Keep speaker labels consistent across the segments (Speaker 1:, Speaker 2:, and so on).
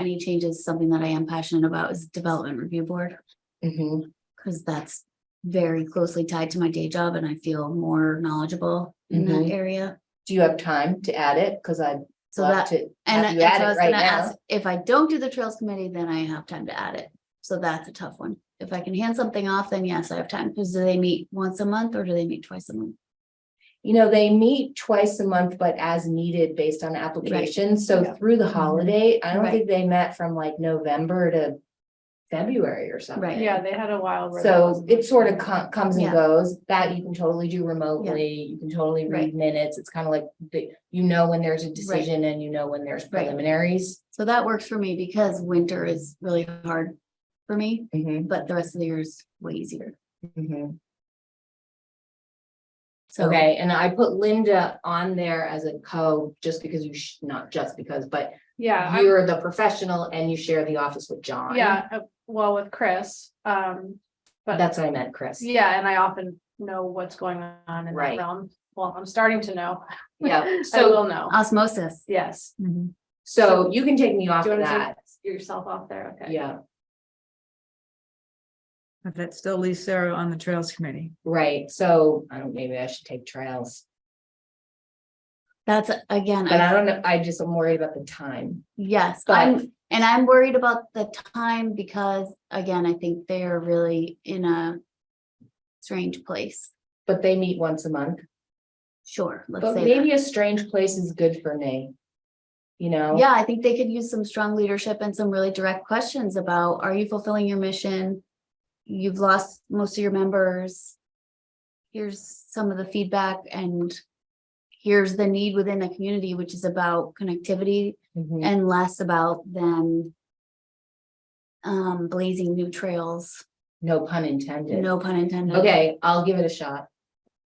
Speaker 1: zoning changes, something that I am passionate about is development review board.
Speaker 2: Mhm.
Speaker 1: Cause that's very closely tied to my day job and I feel more knowledgeable in that
Speaker 2: Mhm.
Speaker 1: area.
Speaker 2: Do you have time to add it? Cause I'd
Speaker 1: So
Speaker 2: love
Speaker 1: that,
Speaker 2: to
Speaker 1: and
Speaker 2: have
Speaker 1: and
Speaker 2: you
Speaker 1: so
Speaker 2: add
Speaker 1: I
Speaker 2: it
Speaker 1: was
Speaker 2: right
Speaker 1: gonna
Speaker 2: now.
Speaker 1: ask, if I don't do the trails committee, then I have time to add it. So that's a tough one. If I can hand something off, then yes, I have time. Cause do they meet once a month or do they meet twice a month?
Speaker 2: You know, they meet twice a month, but as needed based on applications. So
Speaker 3: Yeah.
Speaker 2: through the holiday, I don't
Speaker 1: Mm-hmm. Right.
Speaker 2: think they met from like November to February or something.
Speaker 1: Right.
Speaker 3: Yeah, they had a while. where that
Speaker 2: So
Speaker 3: wasn't-
Speaker 2: it sort of co- comes and
Speaker 1: Yeah.
Speaker 2: goes, that you can totally do remotely, you can totally read
Speaker 1: Right.
Speaker 2: minutes, it's kind of like, the- you know when there's a decision and you know when there's
Speaker 1: Right.
Speaker 2: preliminaries.
Speaker 1: So that works for me because winter is really hard for me,
Speaker 2: Mhm,
Speaker 1: but the rest of the year is way easier. Mm-hmm.
Speaker 2: mhm.
Speaker 1: So.
Speaker 2: Okay, and I put Linda on there as a co, just because you, sh- not just because, but
Speaker 3: Yeah, I'm-
Speaker 2: you're the professional and you share the office with John.
Speaker 3: yeah, uh, well, with Chris, um, but-
Speaker 2: That's what I meant, Chris.
Speaker 3: yeah, and I often know what's going on in that
Speaker 2: Right.
Speaker 3: realm. Well, I'm starting to know.
Speaker 2: Yeah,
Speaker 3: I
Speaker 2: so,
Speaker 3: will know,
Speaker 1: um, Osmosis.
Speaker 3: yes.
Speaker 2: so you can take me off
Speaker 3: Do you
Speaker 2: of
Speaker 3: want to
Speaker 2: that,
Speaker 3: take yourself off there? Okay.
Speaker 2: yeah,
Speaker 4: But that still leaves Sarah on the Trails Committee.
Speaker 2: right, so, I don't, maybe I should take trails,
Speaker 1: That's again,
Speaker 2: but I
Speaker 1: I,
Speaker 2: don't know, I just am worried about the time.
Speaker 1: yes,
Speaker 2: but-
Speaker 1: I'm, and I'm worried about the time because again, I think they are really in a strange place.
Speaker 2: But they meet once a month,
Speaker 1: Sure, let's
Speaker 2: but
Speaker 1: say that.
Speaker 2: maybe a strange place is good for me. You know?
Speaker 1: Yeah, I think they could use some strong leadership and some really direct questions about, are you fulfilling your mission? You've lost most of your members. Here's some of the feedback and here's the need within the community, which is about connectivity
Speaker 2: Mhm.
Speaker 1: and less about them um, blazing new trails,
Speaker 2: No pun intended.
Speaker 1: no pun intended.
Speaker 2: Okay, I'll give it a shot.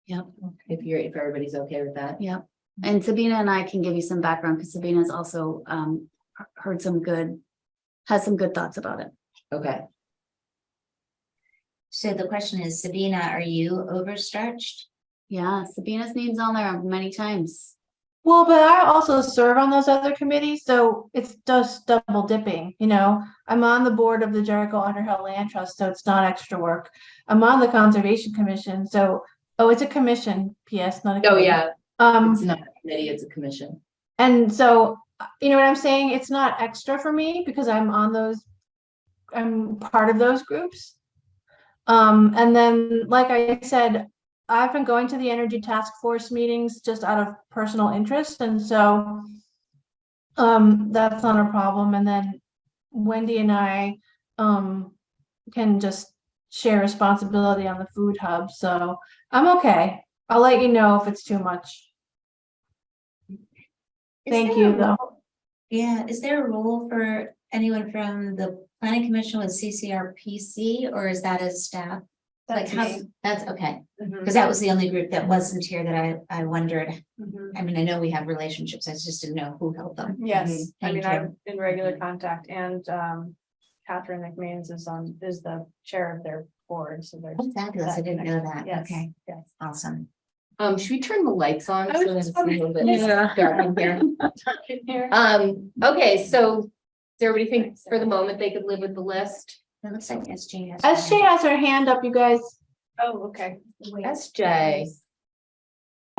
Speaker 1: Yep.
Speaker 2: If you're, if everybody's okay with that.
Speaker 1: Yep. And Sabina and I can give you some background because Sabina's also um, he- heard some good, has some good thoughts about it.
Speaker 2: Okay.
Speaker 5: So the question is, Sabina, are you overstretched?
Speaker 1: Yeah, Sabina's name's on there many times.
Speaker 6: Well, but I also serve on those other committees, so it's just double dipping, you know? I'm on the board of the Jericho Underhill Land Trust, so it's not extra work. I'm on the Conservation Commission, so, oh, it's a commission, PS, not a.
Speaker 2: Oh,
Speaker 6: committee.
Speaker 2: yeah,
Speaker 6: Um,
Speaker 2: it's not a committee, it's a commission.
Speaker 6: and so, uh, you know what I'm saying? It's not extra for me because I'm on those, I'm part of those groups. Um, and then, like I said, I've been going to the Energy Task Force meetings just out of personal interest, and so um, that's not a problem. And then Wendy and I um, can just share responsibility on the food hub, so I'm okay. I'll let you know if it's too much.
Speaker 5: Is
Speaker 6: Thank
Speaker 5: there a
Speaker 6: you, though.
Speaker 5: role- Yeah, is there a role for anyone from the planning commission with CCRPC or is that as staff? Like
Speaker 3: That's
Speaker 5: how,
Speaker 3: me.
Speaker 5: that's okay,
Speaker 3: Mhm,
Speaker 5: because that was the only group that wasn't here that I, I wondered.
Speaker 3: mhm.
Speaker 5: I mean, I know we have relationships, I just didn't know who held them.
Speaker 3: Yes, I
Speaker 5: Thank
Speaker 3: mean,
Speaker 5: you.
Speaker 3: I'm in regular contact and um Catherine McMeans is on, is the chair of their board, so there's.
Speaker 5: Oh, Fabulous, I didn't know that.
Speaker 3: Yes,
Speaker 5: Okay,
Speaker 3: Yes.
Speaker 5: awesome.
Speaker 2: Um, should we turn the lights on?
Speaker 3: I was
Speaker 2: so that
Speaker 3: just
Speaker 2: it's a little bit
Speaker 4: Yeah.
Speaker 2: dark in here? Um, okay, so does everybody think for the moment they could live with the list?
Speaker 5: It looks like SJ has.
Speaker 6: SJ has her hand up, you guys.
Speaker 3: Oh, okay.
Speaker 2: SJ,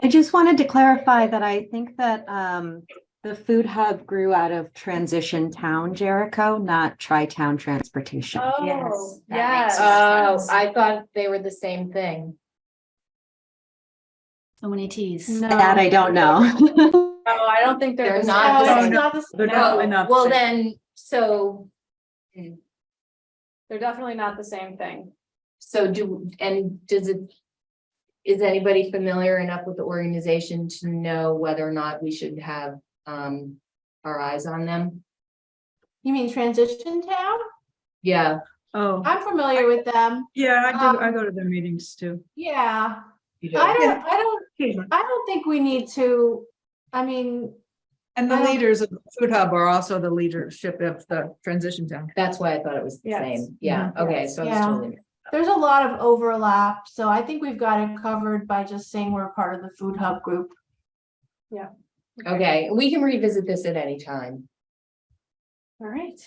Speaker 7: I just wanted to clarify that I think that um the food hub grew out of transition town Jericho, not tri-town transportation.
Speaker 3: Oh,
Speaker 5: Yes, that makes
Speaker 3: yes.
Speaker 5: sense.
Speaker 2: oh, I thought they were the same thing.
Speaker 1: So many Ts.
Speaker 6: No.
Speaker 7: That I don't know.
Speaker 3: Oh, I don't think
Speaker 2: They're
Speaker 3: they're. the
Speaker 2: not the
Speaker 3: same.
Speaker 6: No,
Speaker 2: same.
Speaker 6: Oh, it's not the s-
Speaker 4: They're
Speaker 6: no.
Speaker 4: definitely not. the
Speaker 2: Well,
Speaker 4: same.
Speaker 2: then, so,
Speaker 3: They're definitely not the same thing.
Speaker 2: so do, and does it? Is anybody familiar enough with the organization to know whether or not we should have um our eyes on them?
Speaker 6: You mean transition town?
Speaker 2: Yeah,
Speaker 4: Oh,
Speaker 6: I'm familiar with them.
Speaker 4: yeah, I do, I
Speaker 6: Um,
Speaker 4: go to their meetings too.
Speaker 6: Yeah,
Speaker 2: you do.
Speaker 6: I don't, I don't, I don't think we need to, I mean,
Speaker 4: And the
Speaker 6: I don't-
Speaker 4: leaders of the Food Hub are also the leadership of the transition town.
Speaker 2: that's why I thought it was the
Speaker 3: Yes.
Speaker 2: same. Yeah, okay, so it's
Speaker 6: Mm-hmm. Yeah.
Speaker 2: totally,
Speaker 6: there's a lot of overlap, so I think we've got it covered by just saying we're part of the food hub group.
Speaker 2: okay, we can revisit this at any time.
Speaker 3: All right.